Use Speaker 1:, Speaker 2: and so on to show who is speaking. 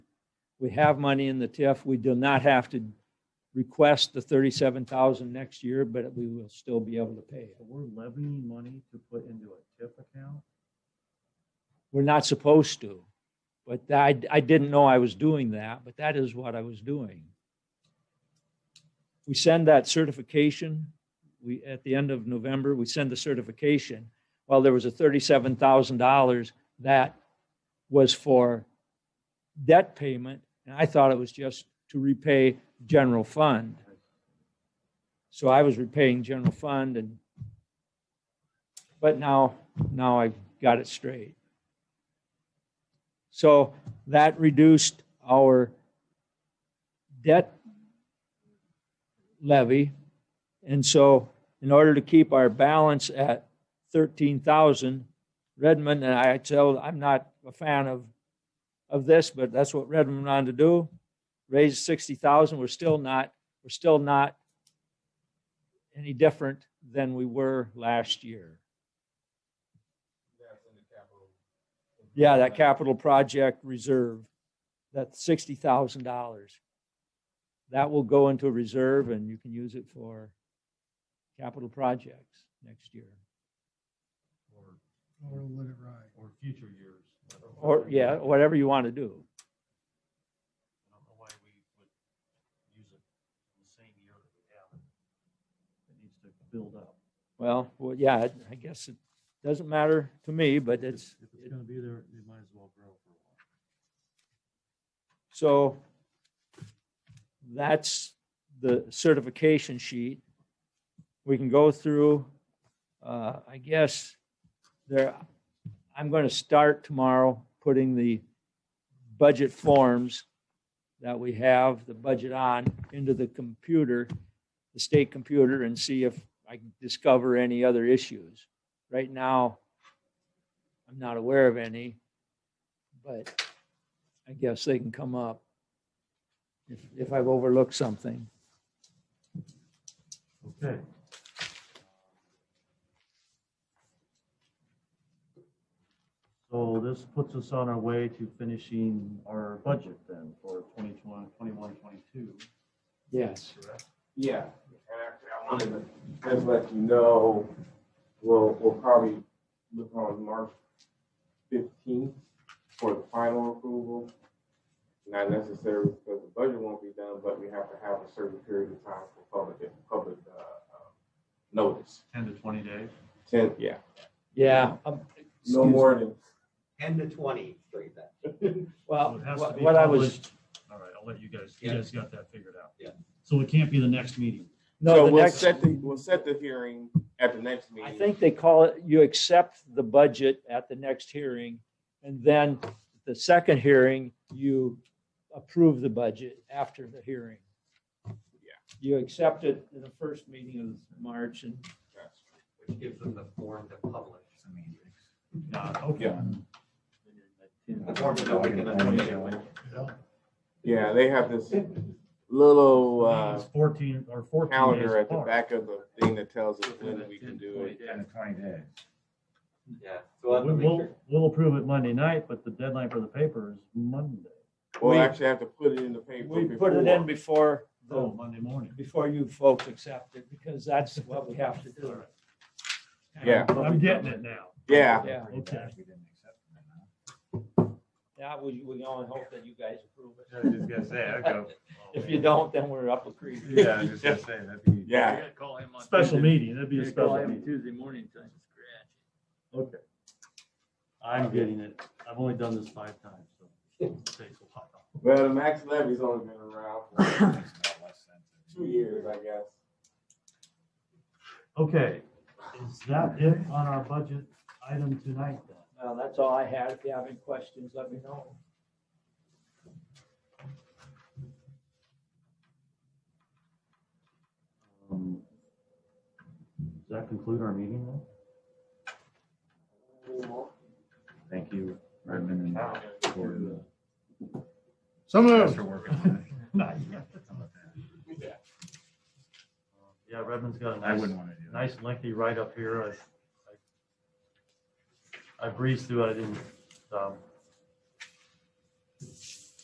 Speaker 1: We have money in the TIF. We do not have to request the thirty-seven thousand next year, but we will still be able to pay it.
Speaker 2: So we're levying money to put into a TIF account?
Speaker 1: We're not supposed to. But I, I didn't know I was doing that, but that is what I was doing. We send that certification, we, at the end of November, we send the certification. Well, there was a thirty-seven thousand dollars that was for debt payment, and I thought it was just to repay general fund. So I was repaying general fund and, but now, now I've got it straight. So that reduced our debt levy. And so in order to keep our balance at 13,000, Redmond, and I tell, I'm not a fan of, of this, but that's what Redmond wanted to do. Raise 60,000, we're still not, we're still not any different than we were last year.
Speaker 3: That's in the capital.
Speaker 1: Yeah, that capital project reserve, that sixty thousand dollars. That will go into a reserve and you can use it for capital projects next year.
Speaker 3: Or,
Speaker 4: Or let it ride.
Speaker 3: or future years. I don't know
Speaker 1: Or,
Speaker 3: why we-
Speaker 1: yeah, whatever you want to do.
Speaker 3: I don't know why we would use it in the same year that we have it.
Speaker 2: It needs to build up.
Speaker 1: Well, well, yeah, I guess it doesn't matter to me, but it's,
Speaker 2: If it's gonna be there, it might as well grow for a while.
Speaker 1: so that's the certification sheet. We can go through, uh, I guess there, I'm going to start tomorrow putting the budget forms that we have, the budget on, into the computer, the state computer, and see if I can discover any other issues. Right now, I'm not aware of any, but I guess they can come up if, if I've overlooked something.
Speaker 2: Okay. So this puts us on our way to finishing our budget then for 2021, 22,
Speaker 1: Yes.
Speaker 2: correct?
Speaker 5: Yeah, and actually, I wanted to just let you know, we'll, we'll probably look on March fifteenth for the final approval. Not necessarily because the budget won't be done, but we have to have a certain period of time for public, public, uh, uh, notice.
Speaker 2: 10 to 20 days?
Speaker 5: Ten, yeah,
Speaker 1: Yeah. um,
Speaker 5: no more than,
Speaker 6: ten to twenty, straight then.
Speaker 1: Well,
Speaker 2: So it has to
Speaker 1: what
Speaker 2: be
Speaker 1: what I was,
Speaker 2: published. All right, I'll let you guys, you
Speaker 6: Yeah.
Speaker 2: guys got that figured out.
Speaker 6: Yeah.
Speaker 2: So it can't be the next meeting.
Speaker 1: no,
Speaker 5: so
Speaker 1: the
Speaker 5: we'll
Speaker 1: next,
Speaker 5: set the, we'll set the hearing at the next meeting.
Speaker 1: I think they call it, you accept the budget at the next hearing. And then the second hearing, you approve the budget after the hearing.
Speaker 5: Yeah.
Speaker 1: You accept it in the first meeting of March and
Speaker 5: That's true.
Speaker 6: Which gives them the form to publish.
Speaker 2: Uh, okay.
Speaker 5: Yeah.
Speaker 6: The form to publish in the 20th.
Speaker 2: uh,
Speaker 5: Yeah, they have this little, uh,
Speaker 2: It's 14 or 14 days
Speaker 5: calendar at the
Speaker 2: apart.
Speaker 5: back of the thing that tells us when we can do it.
Speaker 3: Ten to twenty days.
Speaker 6: Yeah. So we'll have
Speaker 2: We-
Speaker 6: to make
Speaker 2: We'll,
Speaker 6: sure.
Speaker 2: we'll approve it Monday night, but the deadline for the paper is Monday.
Speaker 5: We'll
Speaker 1: We-
Speaker 5: actually have to put it in the paper
Speaker 1: we put it in
Speaker 5: before.
Speaker 1: before,
Speaker 2: Oh,
Speaker 1: the
Speaker 2: Monday morning.
Speaker 1: before you folks accept it, because that's what we have to
Speaker 2: All
Speaker 1: do.
Speaker 2: right.
Speaker 5: Yeah.
Speaker 2: I'm getting it now.
Speaker 5: Yeah,
Speaker 1: Yeah.
Speaker 2: Okay.
Speaker 1: Yeah, we, we only hope that you guys approve it.
Speaker 3: I was just gonna say, I go.
Speaker 1: If you don't, then we're up a creek.
Speaker 3: Yeah, I was just gonna say, that'd be.
Speaker 5: yeah,
Speaker 2: Special meeting, that'd be a special meeting.
Speaker 7: Tuesday morning time.
Speaker 2: Okay. I'm getting it. I've only done this five times, so it takes a while.
Speaker 5: well, the max levy's only been around for two years, I guess.
Speaker 2: Okay, is that it on our budget item tonight then?
Speaker 1: Well, that's all I had. If you have any questions, let me know.
Speaker 2: Um, Does that conclude our meeting then?
Speaker 3: Thank you, Redmond, and Gordon.
Speaker 4: So
Speaker 3: Thanks
Speaker 4: moved.
Speaker 3: for working on
Speaker 2: Not
Speaker 3: it.
Speaker 2: yet. Yeah, Redmond's got a
Speaker 3: I
Speaker 2: nice,
Speaker 3: wouldn't want to do that.
Speaker 2: nice lengthy write-up here. I- I I breezed through, it. I didn't, um,